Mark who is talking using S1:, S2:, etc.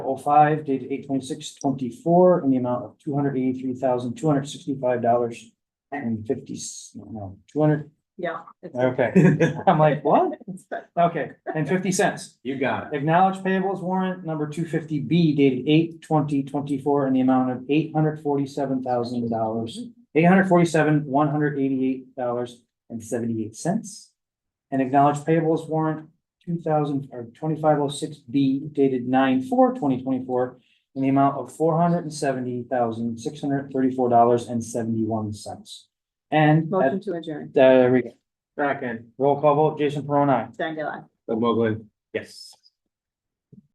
S1: oh five dated eight twenty-six twenty-four in the amount of two hundred eighty-three thousand, two hundred sixty-five dollars and fifty, no, two hundred,
S2: Yeah. it's-
S1: okay. I'm like, what?
S2: it's better.
S1: Okay, and fifty cents.
S3: You got it.
S1: Acknowledge payables warrant number two fifty B dated eight twenty twenty-four in the amount of eight hundred forty-seven thousand dollars. Eight hundred forty-seven, one hundred eighty-eight dollars and seventy-eight cents. And acknowledge payables warrant two thousand or twenty-five oh six B dated nine four twenty twenty-four in the amount of four hundred and seventy thousand, six hundred thirty-four dollars and seventy-one cents. And at,
S2: Motion to adjourn,
S1: there we go.
S3: Back in.
S1: roll call vote, Jason Perron, aye.
S2: Diane Gale, aye.
S3: Doug Mogul. Yes.